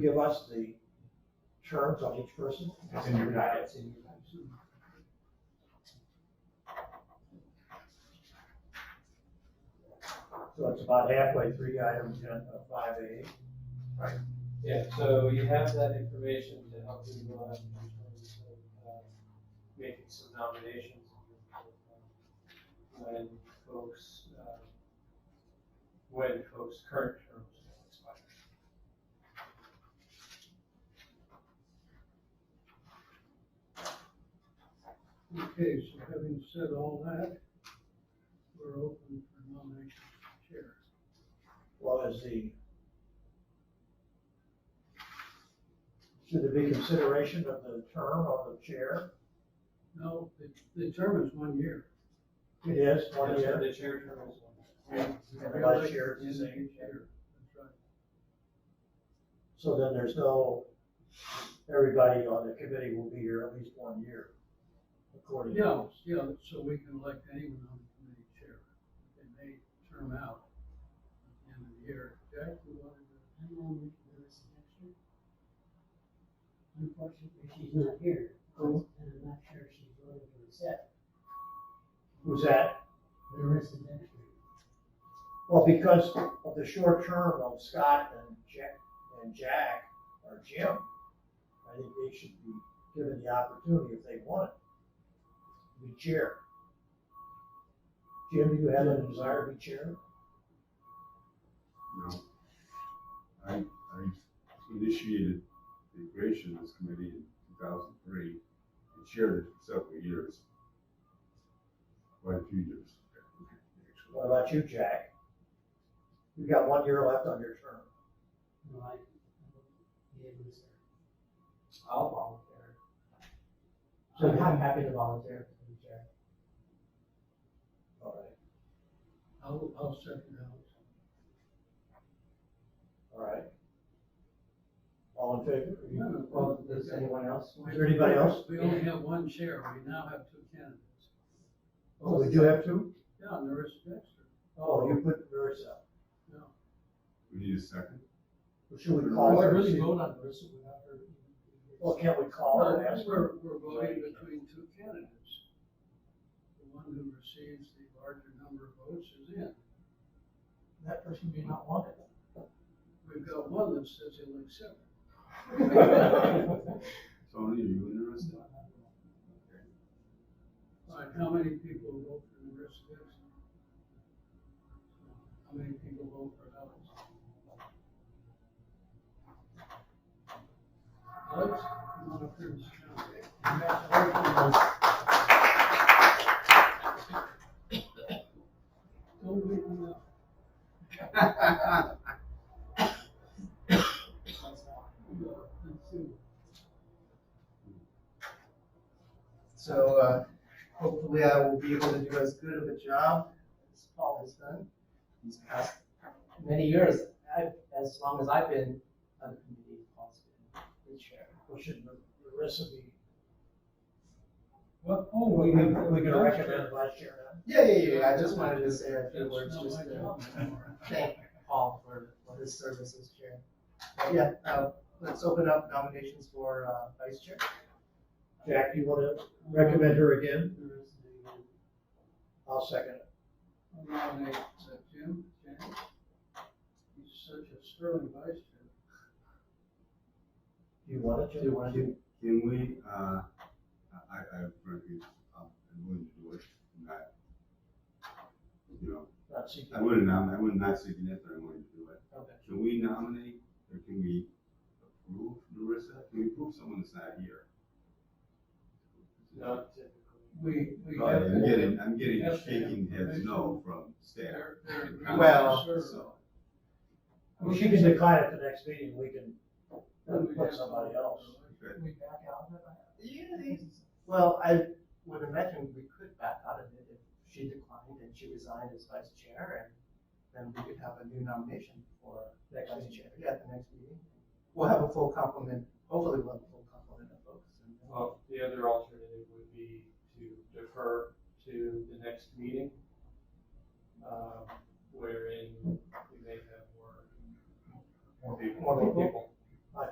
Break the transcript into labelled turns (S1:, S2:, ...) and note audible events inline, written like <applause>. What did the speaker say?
S1: give us the terms on each person?
S2: It's in your packet.
S1: It's in your packet. So it's about halfway through item ten, five A.
S3: Yeah, so you have that information to help you, uh, in terms of, uh, making some nominations. When folks, uh, when folks' current terms will expire.
S1: Oh,
S4: Okay, so having said all that, we're open for nominations for chair.
S1: Well, is the. Should there be consideration of the term of the chair?
S4: No, the, the term is one year.
S1: It is one
S3: That's
S1: year.
S3: what The chair term is one.
S1: And vice chair is the same.
S4: Election is year. That's right.
S1: So then there's no, everybody on the committee will be here at least one year, according to.
S4: Yeah, yeah, so we can elect anyone on the committee chair. They may term out at the end of the year. Jack, you wanted to?
S5: I'm on with Lois next year. Unfortunately, she's not here, and
S1: Who?
S5: I'm not sure if she's willing to accept
S1: Who's that?
S5: Lois is next year.
S1: Well, because of the short term of Scott and Jack, and Jack or Jim, I think they should be given the opportunity if they want it. to Be chair. Jim, do you have a desire to be chair?
S6: No. I, I initiated the creation of this committee in two thousand three and chaired it for several years. Quite a few years. actually.
S1: What about you, Jack? You've got one year left on your term.
S5: No, I, I won't be able to serve.
S3: I'll volunteer.
S1: So-
S5: I'm I'm happy to volunteer for the chair.
S1: All right,
S4: I'll, I'll second Alex.
S1: all right. All in favor? Are you-
S3: Well, does anyone else?
S1: Is there anybody else?
S4: We only have one chair. We now have two candidates.
S1: Oh, we do have two?
S4: Yeah, Marissa Dexter.
S1: Oh, you put yours up.
S4: No.
S6: We need a second.
S1: Should we call her?
S4: Marissa voted on Marissa without her.
S1: Well, can't we call her and
S4: Well,
S1: ask her?
S4: We're, we're voting between two candidates. The one who receives the larger number of votes is in.
S1: That person may not want it.
S4: We've got one that says he'll accept.
S1: <laughs>
S6: Tony, are you interested?
S4: All right, how many people vote for Marissa Dixon? How many people vote for Alex? Alex, come on up here, Mr. Chairman. Congratulations. Don't wait me up. Let's see.
S7: So uh, hopefully I will be able to do as good of a job as Paul has done these past many years, I- as long as I've been on the committee. Paul's been the chair.
S1: We should, the recipe.
S4: Well, oh,
S1: We can, we can
S4: have-
S1: recommend vice chair now.
S7: Yeah, yeah, yeah, I just wanted to say a
S4: That's
S7: few words
S4: not
S7: just
S4: my
S7: to
S4: job anymore.
S7: thank Paul for for his service as chair. But Yeah, uh, let's open up nominations for uh, vice chair.
S1: Jack, you wanna recommend her again?
S4: There is the, uh,
S1: I'll second it.
S4: I nominate uh, Jim, James. He's such a sterling vice chair.
S1: Do you want it? Jim?
S7: Do you want
S6: Can, can we, uh, I, I frankly, I'm willing to do it. Not- You know,
S1: Not seeking.
S6: I wouldn't nominate, I would not second it, but I'm willing to do it.
S7: Okay.
S6: Can we nominate, or can we approve Marissa? Can we approve someone that's not here?
S3: Not typically.
S4: We, we
S6: Oh,
S4: have.
S6: I'm getting, I'm getting a shaking heads no from staff.
S4: They're- they're agreeing to
S7: Well,
S4: serve.
S6: so-
S1: Well, she can decline at the next meeting, we can uh,
S4: Then we
S1: put
S4: have-
S1: somebody else.
S6: Good.
S7: We back out of it? Yeah, these- well, I would imagine we could back out of it if she declined and she resigned as vice chair, and then we could have a new nomination for
S1: Next
S7: vice
S1: meeting.
S7: chair, yeah, at the next meeting. We'll have a full complement, hopefully we'll have a full complement of folks, and then-
S3: Well, the other alternative would be to defer to the next meeting, um, wherein we may have more,
S7: More
S3: people.
S7: people.
S3: More people.